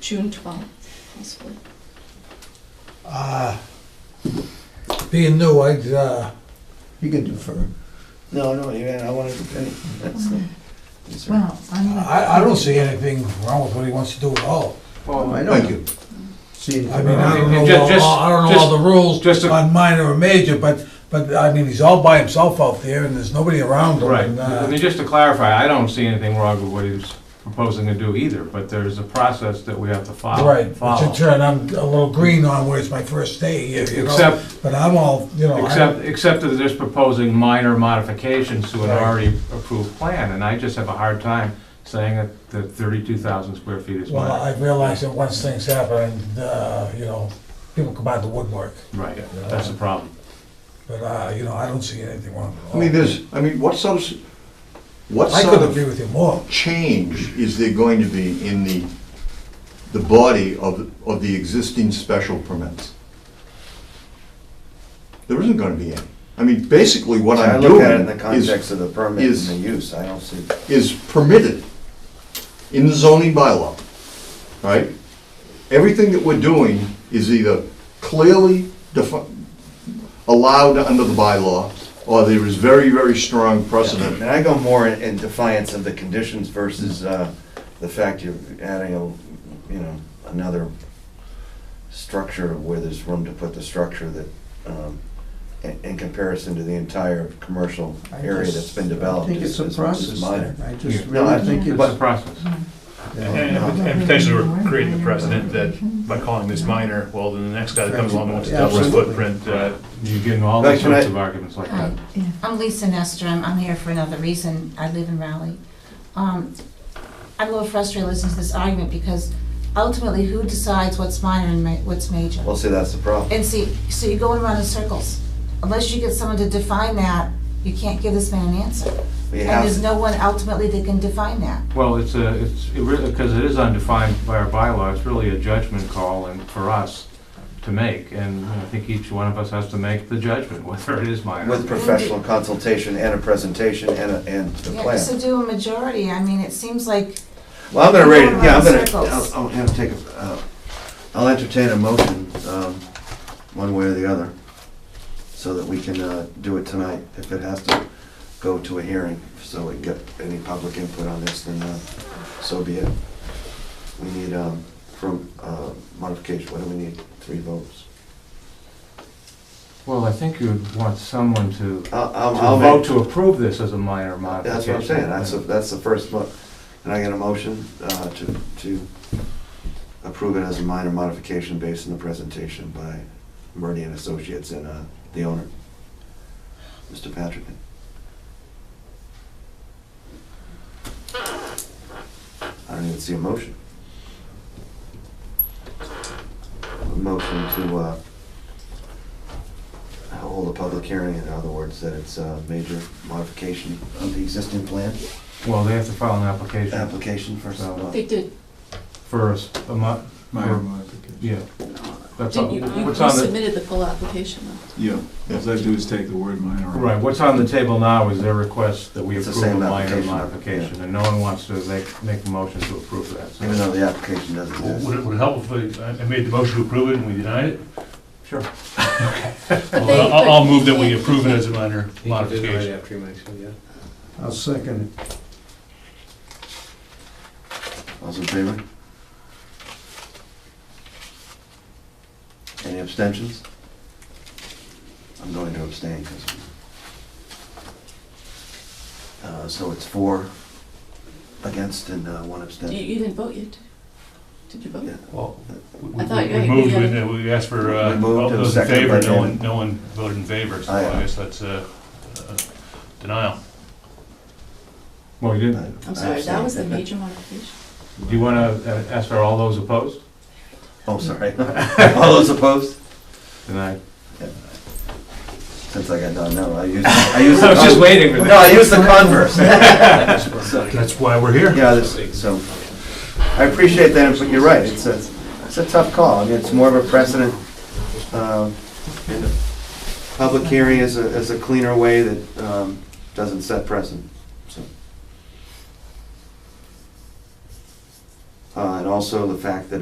June 12th, possibly. Uh, being new, I'd, uh, You can do for, no, no, you, I want to, that's, the- these are- Well, I'm Uh, gonna... I, I don't see anything wrong with what he wants to do at all. Oh, I know. Thank you. See, I mean, I don't know, Just- all- all- I don't know all the just rules a- on minor or major, but, but, I mean, he's all by himself out there and there's nobody around him. Right, and, uh, I mean, just to clarify, I don't see anything wrong with what he's proposing to do either, but there's a process that we have to follow. Right, it's follow. a turn, I'm a little green on where it's my first day, you you know, Except, but I'm all, you know, I- except, except that they're proposing minor modifications to an Right. already approved plan, and I just have a hard time saying that, that thirty-two thousand square feet is well, minor. I realize that once things happen, uh, you know, people come out of the woodwork, Right, that's the problem. but, uh, you know, I don't see anything wrong at all. I mean, there's, I mean, what sort of, what I sort could agree of with you more. change is there going to be in the, the body of, of the existing special permits? There isn't gonna be any. I mean, basically what I I'm look doing at it in the is, context of the permit and is- the use, I don't see. is permitted in the zoning bylaw, right? Everything that we're doing is either clearly defi- allowed under the bylaw, or there is very, very strong precedent And I go more in in defiance of the conditions versus uh, the fact you're adding a, you know, another structure where there's room to put the structure that, um, in in comparison to the entire commercial area that's been developed I think it's is a is- is process. minor. I just Yeah. No, I really think think it's. It's a process. And and potentially we're creating the precedent that by calling this minor, well, then the next guy that comes along and wants to double his footprint, uh, You're getting all Right, these can sorts I- of arguments like Hi, that. I'm Lisa Nestor, I'm, I'm here for another reason, I live in Raleigh. Um, I'm a little frustrated listening to this argument, because ultimately, who decides what's minor and ma- what's major? Well, see, that's the problem. And see, so you're going around in circles, unless you get someone to define that, you can't give this man an answer. We And have- there's no one ultimately that can define that. Well, it's a, it's, because it is undefined by our bylaw, it's really a judgment call and for us to make. And I think each one of us has to make the judgment whether it is minor. With professional consultation and a presentation and a, and the Yeah, plan. So do a majority, I mean, it seems like, Well, I'm gonna We're rate it, going yeah, I'm around in gonna, circles. I'll, I'll have to take a, uh, I'll entertain a motion, um, one way or the other, so that we can, uh, do it tonight, if it has to go to a hearing, so we get any public input on this, then, uh, so be it. We need, um, from, uh, modification, what do we need, three votes? Well, I think you'd want someone to, to I'll, I'll, I'll vote, vote to approve this as a minor modification. that's what I'm saying, that's, the- that's the first vote, and I get a motion, uh, to, to approve it as a minor modification based on the presentation by Murdy and Associates and uh, the owner, Mr. Patrick. I don't even see a motion. A motion to uh, hold a public hearing, in other words, that it's a major modification of the existing plan, Well, they have to file an application application for some, uh, They did. for a, s- a mo- Minor modification. yeah. That's all, Did you, you what's you on the, submitted the full application, though. Yeah, all I do is take the word minor. out. right, what's on the table now is their request that we It's the approve a same minor application, modification. And no one wants to make, make a motion to approve that. so- even though the application doesn't exist. Would it, would it help if I I made the motion to approve it and we denied it? Sure. But they- Well, I'll, I'll but move that we can't- approve it as a minor modification. after you make it, yeah. I'll second it. All's in favor? Any abstentions? I'm going to abstain because. Uh, so it's four against and uh, one You, abstention. you didn't vote yet. Did you vote? Yeah. Well, we- I thought you We had- we you moved, had- with it, we asked for, uh, We moved all and those in seconded by favor, no one, David. no one voted in favor, so Aye, aye. I guess that's a denial. Well, you didn't, I- I'm sorry, I that abstained. was the major modification. do you want to ask for all those opposed? Oh, sorry. All those opposed? Denied. Since I got done, no, I used, I used. I was just the- waiting for No, I used the converse. So- That's why we're here. Yeah, this, so, I appreciate that, input. you're right, it's a, it's a tough call, I mean, it's more of a precedent. um, and a Public hearing is a, is a cleaner way that um, doesn't set precedent, so. Uh, and also the fact that